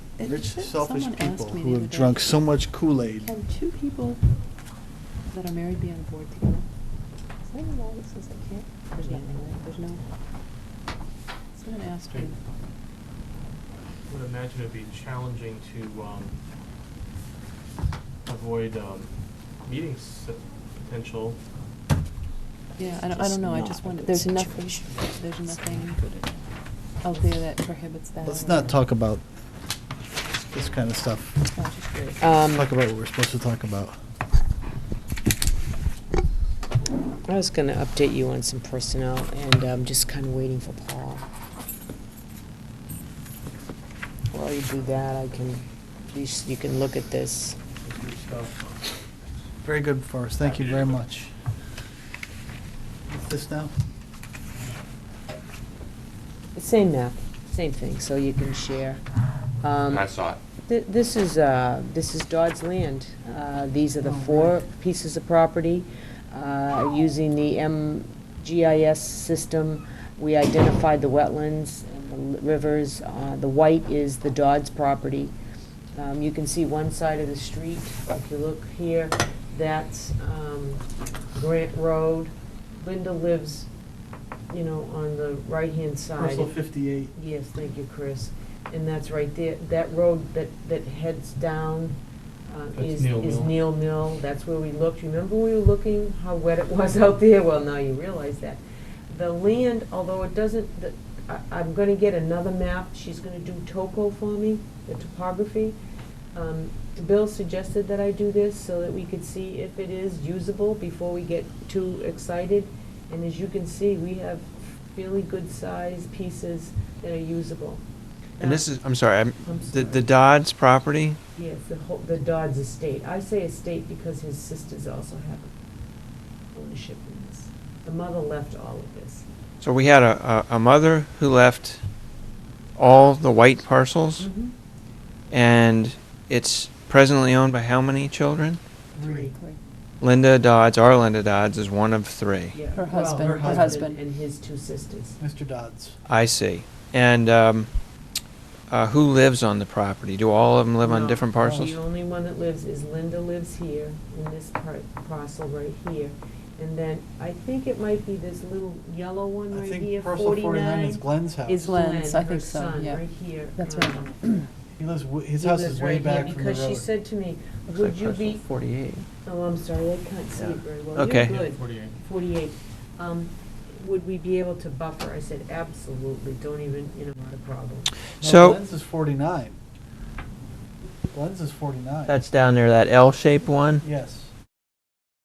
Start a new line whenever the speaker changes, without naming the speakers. rich,
Someone
selfish
asked
people
me
who
the
have
other
drunk
day,
so much Kool-Aid.
Can two people that are married be on a board together? Is there a law that says they can't? There's nothing, right? There's no. Someone asked me,
I would imagine it'd be challenging to um, avoid um, meetings uh, potential.
yeah, I don't, I don't know, I just wondered, there's nothing, there's nothing out there that prohibits that.
Let's
or-
not talk about this kind of stuff.
I was just curious.
Let's
Um,
talk about what we're supposed to talk about.
I was gonna update you on some personnel, and I'm just kinda waiting for Paul. While you do that, I can, at least you can look at this.
Very good for us, thank you
Happy
very
to do it.
much. This now?
It's Same map, same thing, so you can share. Um,
I saw it.
Th- This is, uh, this is Dodd's land. Uh, These are the
Oh, right.
four pieces of property. Uh, Using the MGIS system, we identified the wetlands and the l- rivers. Uh, The white is the Dodd's property. Um, You can see one side of the street, if you look here, that's um, Grant Road. Linda lives, you know, on the right-hand side.
Parcel 58.
Yes, thank you, Chris. And that's right there, that road that, that heads down uh,
That's
is,
Neil
is
Mill.
Neil Mill. That's where we looked. Remember we were looking how wet it was out there? Well, now you realize that. The land, although it doesn't, the- I, I'm gonna get another map. She's gonna do topo for me, the topography. Um, Bill suggested that I do this so that we could see if it is usable before we get too excited. And as you can see, we have really good-sized pieces that are usable.
And
Now-
this is, I'm sorry, I'm,
I'm
the, the
sorry.
Dodds property,
Yes, the whole, the Dodds estate. I say estate because his sisters also have ownership in this. The mother left all of this.
so we had a, a, a mother who left all the white parcels,
Mm-hmm.
and it's presently owned by how many children?
Three.
Linda Dodds, our Linda Dodds is one of three.
Yeah,
Her
well,
husband-
her
husband.
And his two sisters.
Mr. Dodds.
I see. And, um, uh, who lives on the property? Do all of them live on
No,
different
no,
parcels?
The only one that lives is Linda lives here, in this part, parcel right here. And then, I think it might be this little yellow one
I
right here,
think parcel 49 is
forty-nine.
Glenn's house.
Is
Glenn's,
Glenn,
I
her
think so,
son,
yeah.
right here.
That's right.
Um,
He lives, w- his
he
house
lives
is way
right here
back from the road.
Because she said to me,
Looks
would
like
you
parcel
be,
Forty-eight.
oh, I'm sorry, I can't see
Yeah.
it very well.
Okay.
You're
Yeah,
good.
48.
48. Um, Would we be able to buffer? I said, absolutely, don't even, you know, not a problem.
No,
So-
Glenn's is 49. Glenn's is 49.
That's down there, that L-shaped one?
Yes.